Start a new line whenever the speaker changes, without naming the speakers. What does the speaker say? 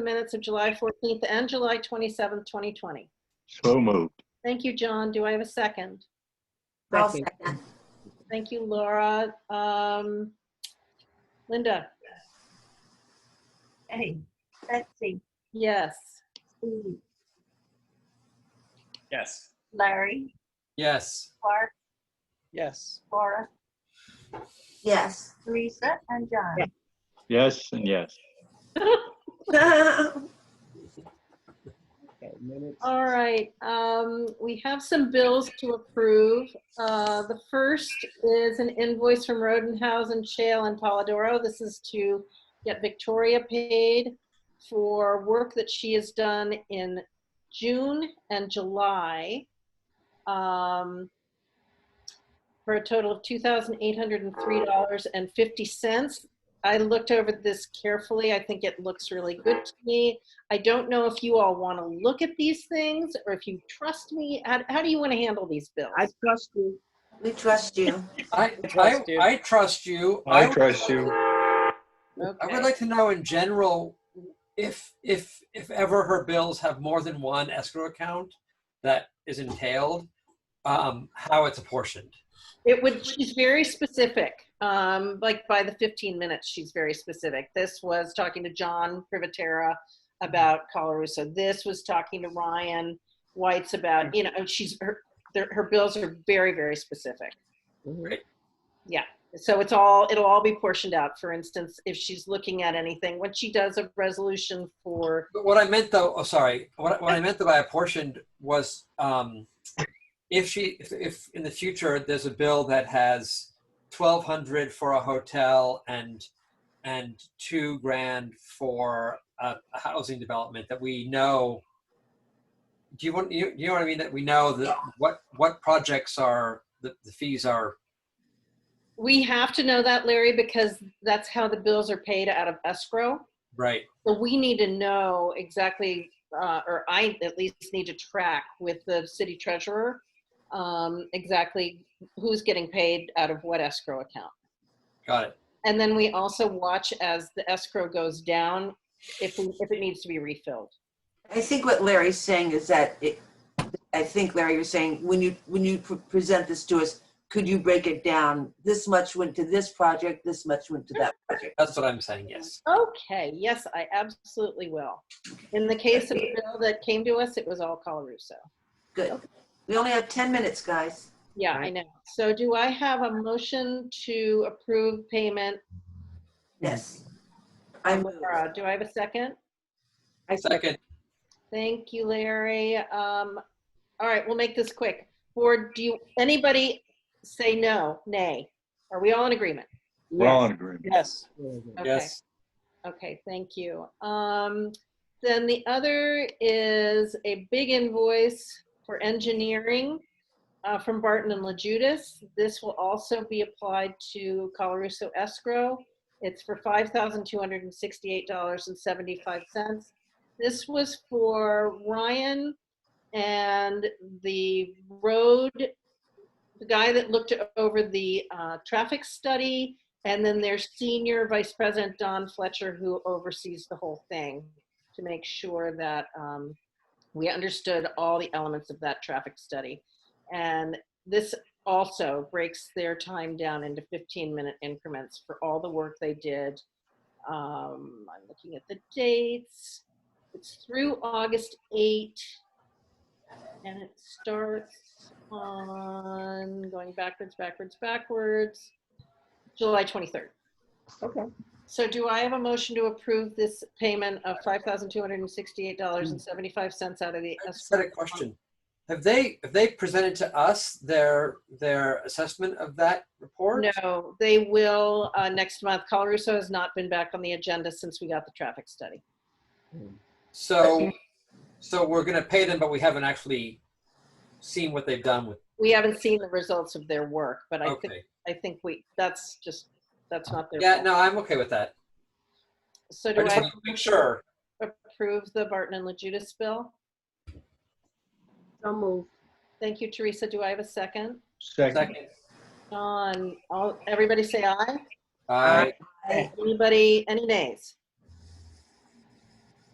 the minutes of July 14th and July 27th, 2020.
So moved.
Thank you, John. Do I have a second?
I'll
Second.
second.
Thank you, Laura. Um, Linda?
Hey, Betsy,
Yes.
Steve,
Yes.
Larry,
Yes.
Clark,
Yes.
Laura,
Yes.
Teresa, and John.
Yes and yes.
Okay, minutes.
All right, um, we have some bills to approve. Uh, the first is an invoice from Rodenhausen, Shale, and Polidoro. This is to get Victoria paid for work that she has done in June and July. um, For a total of two thousand eight hundred and three dollars and fifty cents. I looked over this carefully. I think it looks really good to me. I don't know if you all want to look at these things or if you trust me. How, how do you want to handle these bills?
I trust you.
We trust you.
I, I,
trust you.
I trust you.
I
would-
trust you.
I
Okay.
would like to know in general, if, if, if ever her bills have more than one escrow account that is entailed, um, how it's apportioned.
It would, she's very specific. Um, like by the 15 minutes, she's very specific. This was talking to John Privatera about Colarusso. This was talking to Ryan White's about, you know, and she's, her, their- her bills are very, very specific.
Mm-hmm.
Right.
So it's all, it'll all be portioned out. For instance, if she's looking at anything, when she does a resolution for,
But what I meant though, oh, sorry, what, what I meant by apportioned was, um, if she, if, if in the future, there's a bill that has twelve hundred for a hotel and, and two grand for a, a housing development that we know, do you want, you, you know what I mean? That we know that what, what projects are, the, the fees are,
we have to know that, Larry, because that's how the bills are paid out of escrow.
right?
So we need to know exactly, uh, or I at least need to track with the city treasurer, um, exactly who's getting paid out of what escrow account.
Got it.
And then we also watch as the escrow goes down, if, we- if it needs to be refilled.
I think what Larry's saying is that it, I think Larry was saying, when you, when you pre- present this to us, could you break it down? This much went to this project, this much went to that project.
That's what I'm saying, yes.
Okay, yes, I absolutely will. In the case of the bill that came to us, it was all Colarusso.
Good. We only have 10 minutes, guys.
Yeah, I know. So do I have a motion to approve payment?
Yes. I move.
Laura, Do I have a second?
Second,
Thank you, Larry. Um, all right, we'll make this quick. Board, do you, anybody say no, nay? Are we all in agreement?
We're all in agreement.
Yes.
Okay.
yes.
Okay, thank you. Um, then the other is a big invoice for engineering uh, from Barton and LaJudas. This will also be applied to Colorusso escrow. It's for $5,268.75. This was for Ryan and the road, the guy that looked over the uh, traffic study and then their senior vice president, Don Fletcher, who oversees the whole thing to make sure that um, we understood all the elements of that traffic study. And this also breaks their time down into 15 minute increments for all the work they did. Um, I'm looking at the dates. It's through August 8, and it starts on going backwards, backwards, backwards. July 23rd.
Okay.
So do I have a motion to approve this payment of $5,268.75 out of the
I just had
escrow?
a question. Have they, have they presented to us their, their assessment of that report?
No, they will uh, next month. Colarusso has not been back on the agenda since we got the traffic study.
So, so we're gonna pay them, but we haven't actually seen what they've done with,
We haven't seen the results of their work, but I think,
okay.
I think we, that's just, that's not their.
Yeah,
fault.
no, I'm okay with that.
So
I
do
just
I
want to make sure.
approve the Barton and LaJudas bill?
So moved.
Thank you, Teresa. Do I have a second?
Second.
Second,
John, all, everybody say aye?
I,
Anybody, any nays?